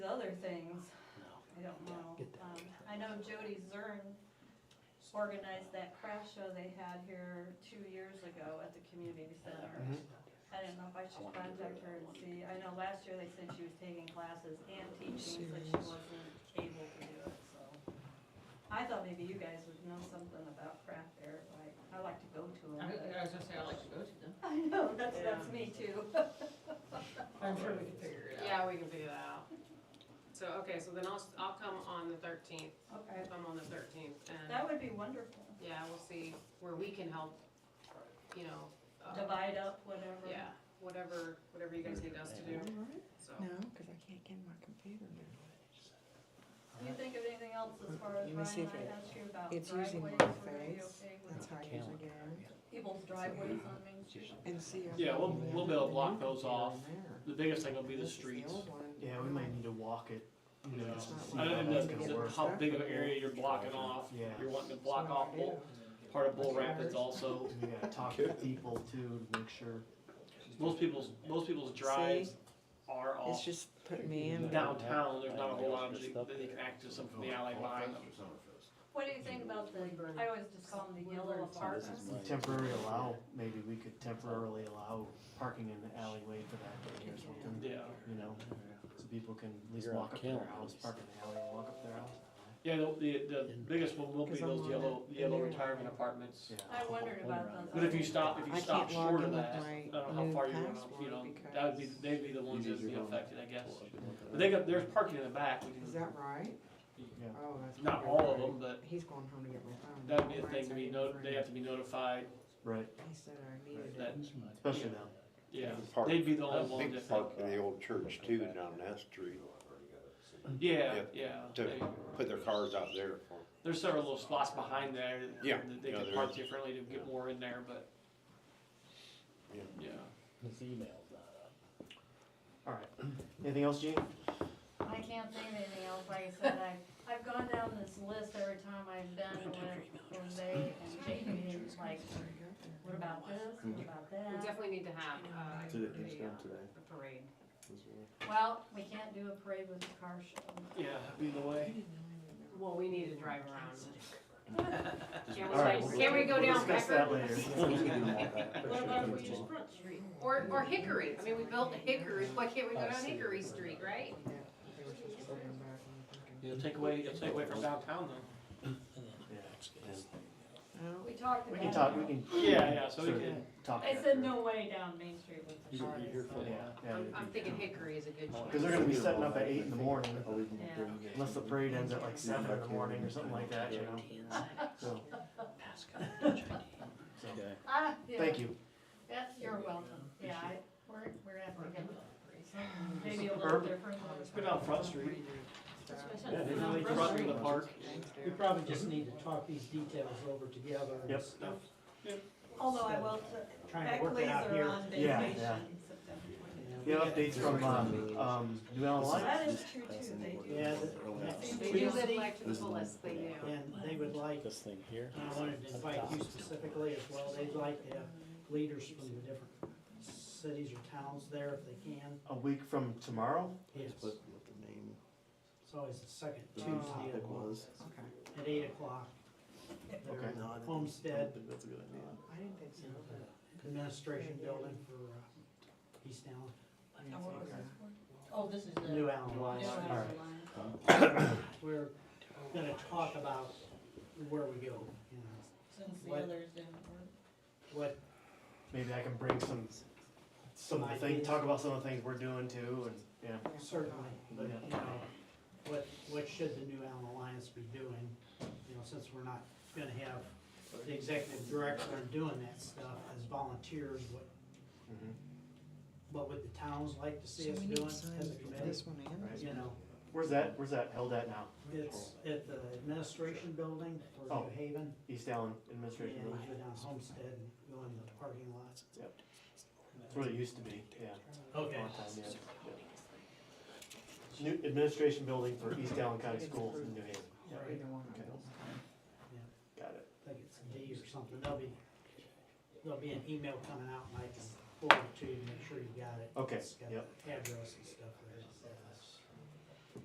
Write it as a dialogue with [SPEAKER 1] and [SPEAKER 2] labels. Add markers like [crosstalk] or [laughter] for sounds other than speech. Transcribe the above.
[SPEAKER 1] I don't know.
[SPEAKER 2] Get that.
[SPEAKER 1] Um, I know Jody Zern organized that craft show they had here two years ago at the community center.
[SPEAKER 2] Mhm.
[SPEAKER 1] I didn't know if I should contact her and see, I know last year they said she was taking classes and teaching, but she wasn't able to do it, so. I thought maybe you guys would know something about craft fair, like, I like to go to
[SPEAKER 3] I would-
[SPEAKER 1] them.
[SPEAKER 3] I was gonna say, I'd like to go to them.
[SPEAKER 1] [laughs] I know, that's, that's me too. [laughs]
[SPEAKER 3] I'm sure we can figure it out.
[SPEAKER 4] Yeah, we can figure that out. So, okay, so then I'll, s- I'll come on the thirteenth,
[SPEAKER 1] Okay,
[SPEAKER 4] come on the thirteenth,
[SPEAKER 1] that
[SPEAKER 4] and,
[SPEAKER 1] would be wonderful.
[SPEAKER 4] yeah, we'll see where we can help, you know. uh,
[SPEAKER 1] Divide up, whatever.
[SPEAKER 4] Yeah, whatever, whatever you guys need us to do, so.
[SPEAKER 2] Oh.
[SPEAKER 5] No, because I can't get my computer.
[SPEAKER 1] Do you think of anything else as far as
[SPEAKER 5] Uh, Let me see
[SPEAKER 1] Brian
[SPEAKER 5] if
[SPEAKER 1] and I
[SPEAKER 5] it-
[SPEAKER 1] asked you about driveways?
[SPEAKER 5] It's using
[SPEAKER 1] Were
[SPEAKER 5] my
[SPEAKER 1] you
[SPEAKER 5] face.
[SPEAKER 1] okay with
[SPEAKER 5] That's how I usually get in.
[SPEAKER 1] People's driveways on Main Street?
[SPEAKER 5] And see. if-
[SPEAKER 6] Yeah, we'll- we'll be able to block those off.
[SPEAKER 5] There.
[SPEAKER 6] The biggest thing will be the
[SPEAKER 5] This is
[SPEAKER 6] streets.
[SPEAKER 5] old one.
[SPEAKER 2] Yeah, we might need to walk it, you know,
[SPEAKER 5] It's not
[SPEAKER 2] see
[SPEAKER 6] I
[SPEAKER 2] how
[SPEAKER 6] don't
[SPEAKER 2] that's
[SPEAKER 6] even
[SPEAKER 2] gonna
[SPEAKER 6] know
[SPEAKER 2] work.
[SPEAKER 6] how big of an area you're blocking off.
[SPEAKER 2] Yeah.
[SPEAKER 6] You're wanting to
[SPEAKER 5] So
[SPEAKER 6] block
[SPEAKER 5] what
[SPEAKER 6] off
[SPEAKER 5] I
[SPEAKER 6] Bull,
[SPEAKER 5] do-
[SPEAKER 6] part of Bull Rapids also.
[SPEAKER 2] We gotta
[SPEAKER 6] [laughs]
[SPEAKER 2] talk to people too, to make sure.
[SPEAKER 6] Most people's, most people's drives are
[SPEAKER 5] It's
[SPEAKER 6] off
[SPEAKER 5] just put me in.
[SPEAKER 6] downtown, there's not a whole lot of, that they can access them from the alley behind them.
[SPEAKER 1] What do you think about the, I always just call them the yellow apartments?
[SPEAKER 2] Temporarily allow, maybe we could temporarily allow parking in the alleyway for that day or something,
[SPEAKER 6] Yeah,
[SPEAKER 2] you know? So people can at least
[SPEAKER 7] You're on
[SPEAKER 2] walk up to their
[SPEAKER 7] campus.
[SPEAKER 2] house, park in the alley and walk up their house.
[SPEAKER 6] yeah, the, the, the biggest one will be
[SPEAKER 5] 'Cause I'm
[SPEAKER 6] those
[SPEAKER 5] on
[SPEAKER 6] yellow,
[SPEAKER 5] that
[SPEAKER 6] yellow
[SPEAKER 5] new one.
[SPEAKER 6] retirement apartments.
[SPEAKER 2] Yeah.
[SPEAKER 1] I wondered about those.
[SPEAKER 6] But if you stop, if
[SPEAKER 5] I
[SPEAKER 6] you stop
[SPEAKER 5] can't log
[SPEAKER 6] short of
[SPEAKER 5] in with
[SPEAKER 6] that,
[SPEAKER 5] my
[SPEAKER 6] I don't know how
[SPEAKER 5] new
[SPEAKER 6] far you're gonna, you
[SPEAKER 5] password
[SPEAKER 6] know,
[SPEAKER 5] because-
[SPEAKER 6] that would be, they'd be the ones that'd be
[SPEAKER 7] Easier.
[SPEAKER 6] affected, I guess. But they got, there's parking in the back, we
[SPEAKER 5] Is
[SPEAKER 6] can,
[SPEAKER 5] that right?
[SPEAKER 2] Yeah.
[SPEAKER 5] Oh, that's.
[SPEAKER 6] not
[SPEAKER 5] probably
[SPEAKER 6] all of
[SPEAKER 5] right.
[SPEAKER 6] them, but
[SPEAKER 5] He's going home to get my phone.
[SPEAKER 6] that'd be a
[SPEAKER 5] Mine's
[SPEAKER 6] thing to be
[SPEAKER 5] not
[SPEAKER 6] no,
[SPEAKER 5] even
[SPEAKER 6] they have to be notified
[SPEAKER 2] Right,
[SPEAKER 5] free. He said I needed
[SPEAKER 6] that,
[SPEAKER 5] it.
[SPEAKER 2] especially now.
[SPEAKER 6] yeah.
[SPEAKER 8] Park.
[SPEAKER 6] They'd be the only one
[SPEAKER 8] Big
[SPEAKER 6] that,
[SPEAKER 8] park in the old church too down that street
[SPEAKER 6] yeah,
[SPEAKER 8] Yeah.
[SPEAKER 6] yeah. They-
[SPEAKER 8] to put their cars out there for.
[SPEAKER 6] There's several little spots behind there that-
[SPEAKER 8] Yeah.
[SPEAKER 6] that they
[SPEAKER 8] Yeah,
[SPEAKER 6] could
[SPEAKER 8] there
[SPEAKER 6] park
[SPEAKER 8] is.
[SPEAKER 6] differently to get
[SPEAKER 8] Yeah.
[SPEAKER 6] more in there, but,
[SPEAKER 8] Yeah.
[SPEAKER 6] yeah.
[SPEAKER 7] His email's not
[SPEAKER 9] uh,
[SPEAKER 7] up.
[SPEAKER 2] Alright, anything else, Gene?
[SPEAKER 1] I can't think of anything else, like I said, I, I've gone down this list every time I've done with Jose and Jamie, and like, what about this,
[SPEAKER 2] Mm-hmm.
[SPEAKER 1] what about
[SPEAKER 4] we
[SPEAKER 1] that?
[SPEAKER 4] definitely need to have, uh,
[SPEAKER 8] Today, it's
[SPEAKER 4] a,
[SPEAKER 8] down
[SPEAKER 4] uh,
[SPEAKER 8] today.
[SPEAKER 4] a parade.
[SPEAKER 1] Well, we can't do a parade with a car show.
[SPEAKER 6] Yeah, that'd be the way.
[SPEAKER 4] Well, we need to drive around. [laughs] Can
[SPEAKER 2] All right,
[SPEAKER 4] we,
[SPEAKER 2] we'll-
[SPEAKER 4] can we go
[SPEAKER 2] we'll
[SPEAKER 4] down
[SPEAKER 2] Discuss
[SPEAKER 4] Becker?
[SPEAKER 2] that [laughs] later.
[SPEAKER 4] [laughs] What about if we use Front Street? Or, or Hickory, I mean, we built Hickory, why can't we go down Hickory Street, right?
[SPEAKER 5] Yeah, they were supposed to bring him back and I'm thinking,
[SPEAKER 6] You'll take away, you'll take away from downtown though.
[SPEAKER 5] oh,
[SPEAKER 1] We talked about.
[SPEAKER 2] We can talk,
[SPEAKER 1] it.
[SPEAKER 2] we can.
[SPEAKER 6] Yeah, yeah, so we
[SPEAKER 2] sort of
[SPEAKER 6] can-
[SPEAKER 2] Talk.
[SPEAKER 1] I said no way down Main Street with the
[SPEAKER 7] You'll be here
[SPEAKER 1] parties,
[SPEAKER 7] for a while.
[SPEAKER 1] so.
[SPEAKER 2] Yeah, yeah.
[SPEAKER 4] I'm, I'm thinking Hickory is a good choice.
[SPEAKER 2] Cause they're gonna be setting up at eight in the morning,
[SPEAKER 1] Yeah.
[SPEAKER 2] unless the parade ends at like seven in the morning or something like that, you know? So, so,
[SPEAKER 1] Ah, yeah.
[SPEAKER 2] thank you.
[SPEAKER 1] Yes, you're welcome. Yeah, I, we're, we're gonna have to get something maybe a little
[SPEAKER 2] Urban-
[SPEAKER 1] different. one.
[SPEAKER 6] Go down Front Street.
[SPEAKER 5] so-
[SPEAKER 6] Yeah, they really truck in the park.
[SPEAKER 5] Thanks,
[SPEAKER 9] We
[SPEAKER 5] Derek.
[SPEAKER 9] probably just need to talk these details over together
[SPEAKER 2] Yep.
[SPEAKER 9] and stuff.
[SPEAKER 1] Although I will,
[SPEAKER 9] Trying to work it
[SPEAKER 1] Beckley's
[SPEAKER 9] out here.
[SPEAKER 1] are on
[SPEAKER 2] Yeah,
[SPEAKER 1] vacation
[SPEAKER 2] yeah.
[SPEAKER 1] September
[SPEAKER 2] Yeah, updates from, um, um, New Allen
[SPEAKER 1] 20th.
[SPEAKER 2] Lights.
[SPEAKER 1] That is true too, they do.
[SPEAKER 9] Yeah, that's
[SPEAKER 4] They do live
[SPEAKER 9] Tuesday,
[SPEAKER 4] life to the fullest, they do.
[SPEAKER 9] And they would like,
[SPEAKER 7] This thing here.
[SPEAKER 9] I wanted to invite you specifically as well, they'd like to have leaders from the different cities or towns there if they can.
[SPEAKER 2] A week from tomorrow?
[SPEAKER 9] Yes,
[SPEAKER 7] What what the name,
[SPEAKER 9] it's always the second
[SPEAKER 7] the
[SPEAKER 9] Tuesday
[SPEAKER 7] topic
[SPEAKER 9] of the month
[SPEAKER 7] was.
[SPEAKER 5] Okay,
[SPEAKER 9] at eight o'clock.
[SPEAKER 2] Okay.
[SPEAKER 7] No, I don't- I don't
[SPEAKER 9] Homestead
[SPEAKER 7] think that's a good idea.
[SPEAKER 5] I didn't think so, but.
[SPEAKER 9] Administration Building for uh, East Allen,
[SPEAKER 5] Yeah, okay.
[SPEAKER 1] Oh, this is
[SPEAKER 9] New Allen
[SPEAKER 1] New
[SPEAKER 9] Lights.
[SPEAKER 1] Allen
[SPEAKER 2] Alright.
[SPEAKER 1] line.
[SPEAKER 9] We're gonna talk about where we go, you know.
[SPEAKER 1] Since
[SPEAKER 9] What?
[SPEAKER 1] didn't work.
[SPEAKER 9] what
[SPEAKER 2] Maybe I can bring some, some of the things, talk about some of the things we're doing too, and, yeah.
[SPEAKER 9] certainly, but you know, what, what should the new Allen Alliance be doing? You know, since we're not gonna have the executive director doing that stuff as volunteers, what,
[SPEAKER 7] Mm-hmm.
[SPEAKER 2] Mhm.
[SPEAKER 9] what would the towns like to
[SPEAKER 5] So
[SPEAKER 9] see us
[SPEAKER 5] we need
[SPEAKER 9] doing as
[SPEAKER 5] signs
[SPEAKER 9] a
[SPEAKER 5] for
[SPEAKER 9] committee?
[SPEAKER 5] This one and
[SPEAKER 2] Right.
[SPEAKER 5] this
[SPEAKER 9] You know,
[SPEAKER 2] Where's that, where's that held at now?
[SPEAKER 9] it's at the administration building for
[SPEAKER 2] Oh.
[SPEAKER 9] New Haven,
[SPEAKER 2] East Allen
[SPEAKER 9] and
[SPEAKER 2] Administration
[SPEAKER 9] you
[SPEAKER 2] Building?
[SPEAKER 9] go down Homestead and go in the parking lot.
[SPEAKER 2] Yep. That's where it used to be, yeah.
[SPEAKER 9] Okay.
[SPEAKER 2] Long time, yeah, yeah. New administration building for East Allen County Schools in New Haven.
[SPEAKER 5] one, either one of
[SPEAKER 2] Okay.
[SPEAKER 5] those.
[SPEAKER 2] Got it.
[SPEAKER 9] I think it's D or something, there'll be, there'll be an email coming out, and I can forward it to you, make sure you got it.
[SPEAKER 2] Okay,
[SPEAKER 9] It's got
[SPEAKER 2] yep.
[SPEAKER 9] Address and stuff there.